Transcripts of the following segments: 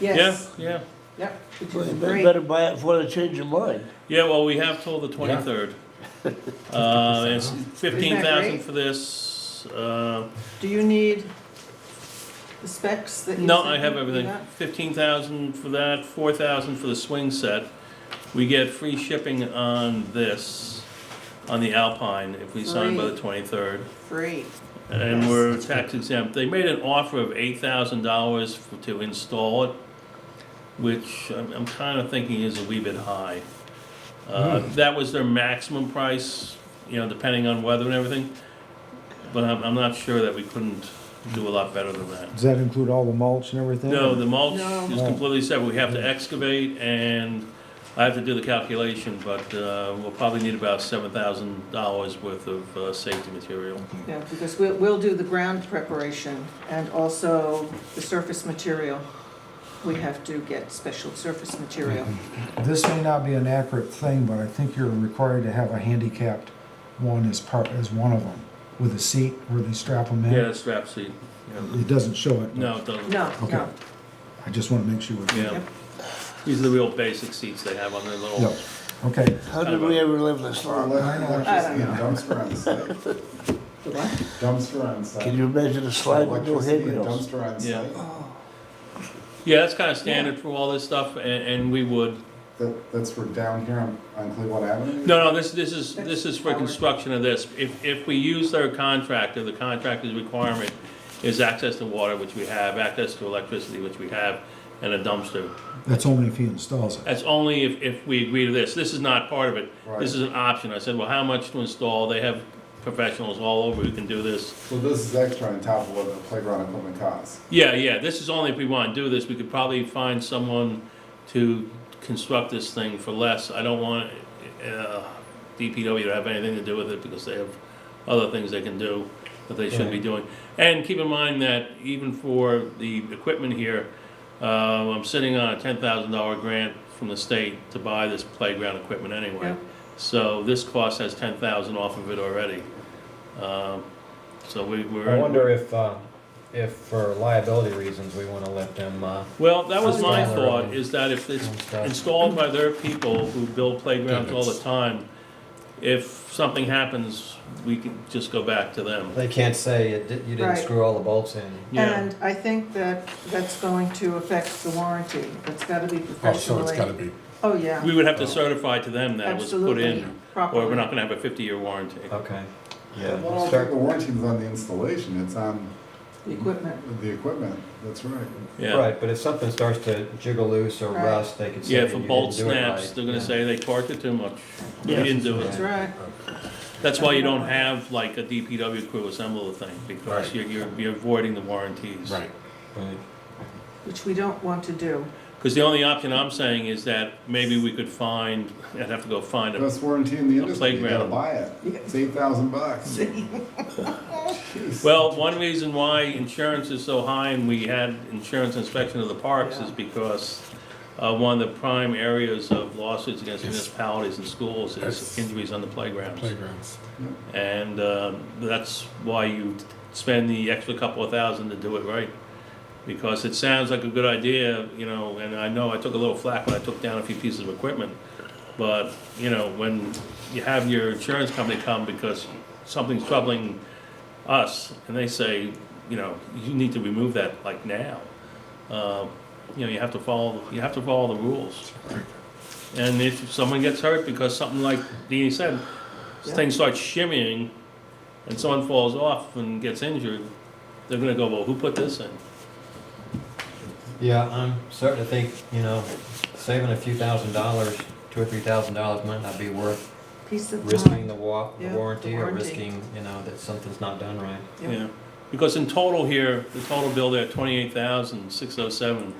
Yeah, Yes. yeah. Yep. Which Well, is you great. Better buy it before they change their mind. Yeah, well, we have till the twenty-third. Uh, it's fifteen thousand great? for this, uh, Do you need the specs that you no, sent I have me? everything. Yeah. Fifteen thousand for that, four thousand for the swing set. We get free shipping on this, on the Alpine, if we sign by the Great. twenty-third. Great. And Yes. we're tax exempt. They made an offer of eight thousand dollars to install it, which I'm, I'm kind of thinking is a wee bit high. Uh, Hmm. That was their maximum price, you know, depending on weather and everything. But I'm, I'm not sure that we couldn't do a lot better than that. Does that include all the mulch and everything? No, the mulch No. is completely separate. We have to excavate and I have to do the calculation, but, uh, we'll probably need about seven thousand dollars worth of, uh, safety material. Yeah, because we'll, we'll do the ground preparation and also the surface material. We have to get special surface material. Mm-hmm. This may not be an accurate thing, but I think you're required to have a handicapped one as part, as one of them, with a seat where they strap them in. Yeah, the strap seat, yeah. It doesn't show it. but No, it doesn't. No, Okay. no. I just want to make sure. Yeah. These are the real basic seats they have on their Yeah, little, okay. How did we ever live this long? I don't Dumpster on site. The what? Dumpster on site. Can you imagine a slide with no Electricity and handrails? Dumpster on Yeah. site. yeah, that's kind of standard for all this stuff, and, and we would, That, that's for down here on, on Cleveland Avenue? no, no, this, this is, this is for construction of this. If, if we use their contractor, the contractor's requirement is access to water, which we have, access to electricity, which we have, and a dumpster. That's only if he installs it. That's only if, if we agree to this. This is not part of it. This is an option. I said, well, how much to install? They have professionals all over who can do this. So this is extra on top of what the playground equipment costs. Yeah, yeah, this is only if we wanna do this, we could probably find someone to construct this thing for less. I don't want, uh, DPW to have anything to do with it because they have other things they can do that they should be doing. And keep in mind that even for the equipment here, uh, I'm sitting on a ten thousand dollar grant from the state to buy this playground equipment anyway. Yeah. So this cost has ten thousand off of it already. Um, so we, we're. I wonder if, uh, if for liability reasons, we wanna let them, uh, Well, that was my Installer. thought, is that if it's installed by their people who build playgrounds all the time, if something happens, we can just go back to them. they can't say it di- you didn't Right. screw all the bolts in. Yeah, And I think that that's going to affect the warranty. That's gotta be Oh, so it's professionally. gotta be. Oh, yeah. we would have to certify to them that it was put Absolutely. in, or we're Properly. not gonna have a fifty-year warranty. Okay. Well, I Yeah. don't think the warranty's on the installation, it's on The equipment. the equipment, that's right. Yeah, Right, but if something starts to jiggle loose or Right. rust, they could say yeah, that if you a didn't bolt do it snaps, right. they're gonna Yeah. say they torqued it too much, we Yeah. didn't do it. That's right. That's why you don't have like a DPW crew assemble the thing, because Right. you're, you're- you're avoiding the warranties. Right. Right. Which we don't want to do. Because the only option I'm saying is that maybe we could find, I'd have to go find a Best warranty in the A industry, you gotta playground. buy it. It's eight thousand bucks. Jeez. Well, one reason why insurance is so high and we had insurance inspection of the parks is because uh, one of the prime areas of lawsuits against municipalities and schools is Yes. injuries on the playgrounds. Playgrounds. And um, that's why you spend the extra couple of thousand to do it right. Because it sounds like a good idea, you know, and I know I took a little flack when I took down a few pieces of equipment. But, you know, when you have your insurance company come because something's troubling us, and they say, you know, you need to remove that like now. Uh, You know, you have to follow, you have to follow the rules. And if someone gets hurt because something like Deanie said, Yeah. things start shimmying, and someone falls off and gets injured, they're gonna go, well, who put this in? Yeah, I'm starting to think, you know, saving a few thousand dollars, two or three thousand dollars might not be worth Piece of risking time. the wa, the Yeah, the warranty or warranty. risking, you know, that something's not done right. Yeah. Yeah, because in total here, the total bill there, twenty-eight thousand, six oh seven,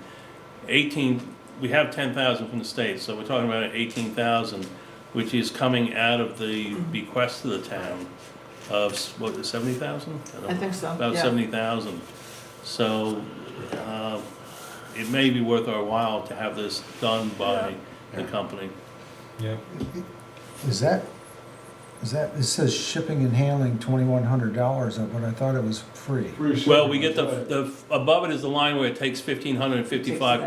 eighteen, we have ten thousand from the state, so we're talking about eighteen thousand, which is coming out of the bequest to the town of, s- what, seventy thousand? I think so, About yeah. seventy thousand. So, uh, it may be worth our while to have this done by the company. Yeah. Is that, is that, it says shipping and handling twenty-one hundred dollars, but I thought it was free. Free shipping, Well, we get that's the, right. the, above it is the line where it takes fifteen hundred and fifty-five